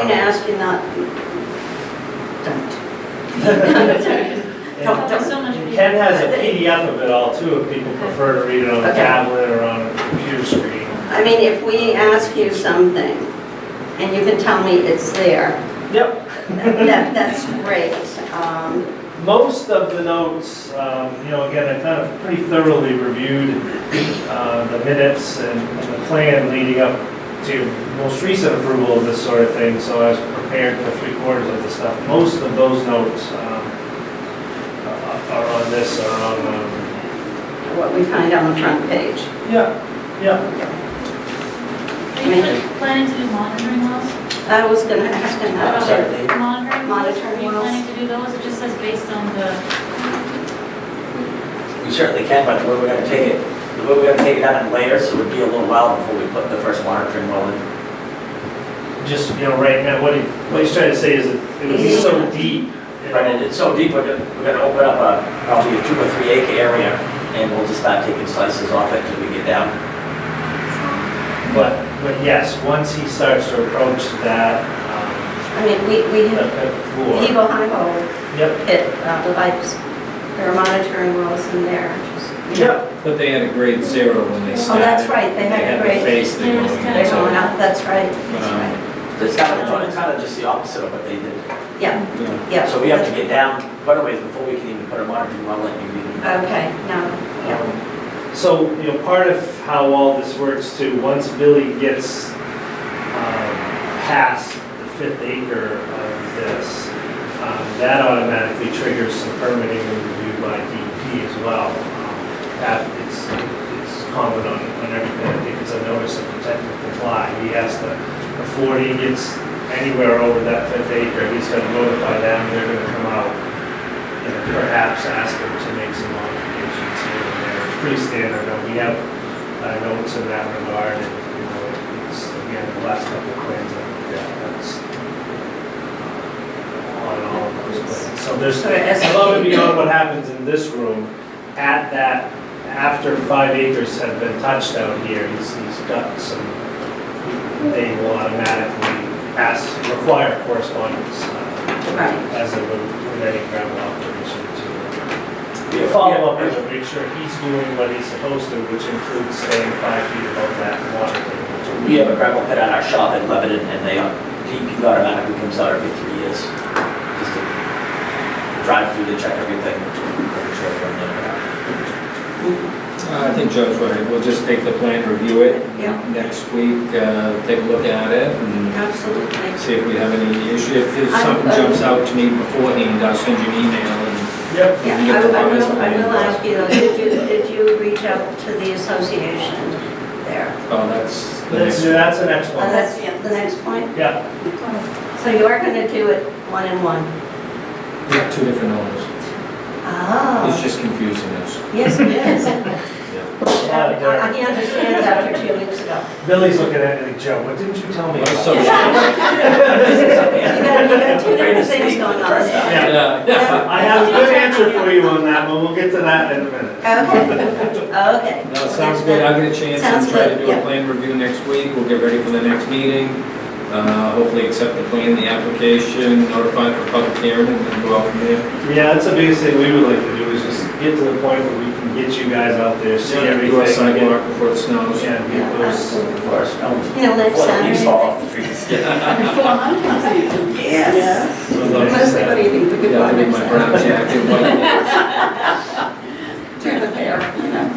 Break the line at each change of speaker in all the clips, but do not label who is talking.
trash cannot be dumped. Don't-
And
don't-
so much.
And Ken has a PDF of it all too, if people prefer to read it on a
Okay.
tablet or on a computer screen.
I mean, if we ask you something and you can tell me it's there,
Yep,
that, that's great. Um,
most of the notes, um, you know, again, I kind of pretty thoroughly reviewed uh, the minutes and and the plan leading up to most recent approval of this sort of thing, so I was prepared for three quarters of the stuff. Most of those notes um, uh, are are on this, are on, um,
What we find on the front page.
yeah, yeah.
Are you pl- planning to do monitoring wells?
I was gonna ask him that.
Sorry.
Monitoring wells,
Monitoring
are you
wells.
planning to do those? It just says based on the,
We certainly can, but we're gonna take it, we're gonna take it out in layers, so it'd be a little while before we put the first monitoring well in.
just, you know, right now, what he, what he's trying to say is that it would be so deep. you know.
Right, and it's so deep, we're gonna, we're gonna open up a, probably a two or three acre area, and we'll just start taking slices off it till we get down.
But, but yes, once he starts to approach that, um,
I mean, we, we,
that that floor.
Hebo Highbo
Yep,
pit, uh, the pipes, there are monitoring wells in there. just, you know.
yep,
But they had a grade zero when they
Oh,
started.
that's right, they had a
the
grade-
face
They
thing
were
going
kinda
They're
into
going
it.
out, that's right,
Um,
that's
It's kind of, it's kind of just the opposite of what they did.
right. Yeah,
Yeah.
yeah.
So we have to get down quite a ways before we can even put a monitoring well in. You need-
Okay, no, yeah.
um, so, you know, part of how all this works too, once Billy gets, um, past the fifth acre of this, um, that automatically triggers some permitting and review by DEP as well. Um, That, it's, it's common on, on everything, I think it's a notice of intent to comply, he has to, before he gets anywhere over that fifth acre, he's gonna notify them, they're gonna come out, and perhaps ask him to make some modifications here and there, it's pretty standard, and we have uh, notes in that regard, and, you know, it's, again, the last couple of plans, I think that's uh, on all of those plans. So there's,
So it's-
above and beyond what happens in this room, at that, after five acres have been touched out here, he's, he's got some, they will automatically ask, require correspondence uh,
Right,
as a, with any gravel operation to the
We have-
follow-up is to make sure he's doing what he's supposed to, which includes staying five feet above that water table.
We have a gravel pit on our shop in Lebanon, and they, DEP automatically comes out every three years. Just to Drive through to check everything. make sure we're in
Uh, I think Joe's right, we'll just take the plan, review it
yeah,
next week, uh, take a look at it and
absolutely.
see if we have any issue. If there's
I'm
something
good.
jumps out to me beforehand, I'll send you an email and.
Yep.
Yeah,
You
I
get the
will, I
bonus
will I
plan.
will ask you, though, did you, did you reach out to the association there?
Oh, that's the
That's,
next.
that's the next
Oh,
one.
that's the next point?
Yeah,
So you are gonna do it one and one?
We have two different owners. It's
Oh,
just confusing us.
yes, it is.
lot of
I I
dirt.
understand after two weeks ago.
Billy's looking at me like, Joe, what didn't you tell me about?
So-
You got, you got two different things going on there.
Yeah.
Yeah.
I have a good answer for you on that, but we'll get to that in a minute.
Okay, okay.
No, it sounds good, I'll get a chance
Sounds
and try to
good,
do a
yeah.
plan review next week, we'll get ready for the next meeting. Uh, hopefully accept the plan, the application, notify for public hearing, and then go out from there.
Yeah, that's the biggest thing we would like to do, is just get to the point where we can get you guys out there, see everything.
Do a sidewalk before it snows.
Yeah, get those.
the ground. For our stones.
You know, next
Before the leaves
Saturday.
fall off the trees.
Yes.
Unless
Mostly, what do you think, the good
Yeah,
one
I need
is?
my brown jacket, white.
Turn the fair.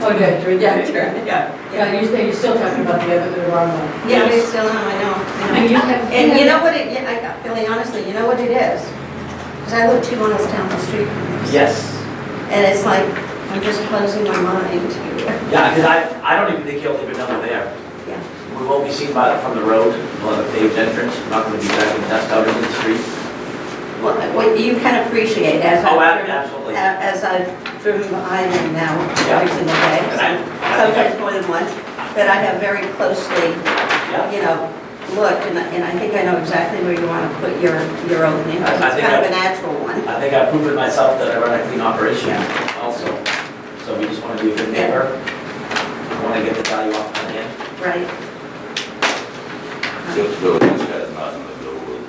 Oh, yeah, during
Yeah,
the,
turn, yeah, yeah.
yeah, you're saying, you're still talking about the other, the wrong one.
Yeah, we
Yes.
still, know, I know, I know.
And you have-
And you know what it, yeah, I got, Billy, honestly, you know what it is? Because I live two miles down the street from this.
Yes,
And it's like, I'm just closing my mind to,
yeah, because I, I don't even think you'll even know they're there.
Yeah.
We won't be seen by, from the road, we'll have a paved entrance, We're not gonna be driving dust out into the street.
well, what you can appreciate as I've.
Oh, ab-
driven-
absolutely.
a- As I've driven behind them now,
Yeah.
twice in the
And
day,
I, I think I-
sometimes more than once, but I have very closely,
yeah,
you know, looked, and I, and I think I know exactly where you want to put your, your opening.
I- I
It's
think
kind of a
I-
natural one.
I think I've proven myself that I run a clean operation also. So we just want to be a good neighbor. We want to get the value off my end.
Right.
That's really nice.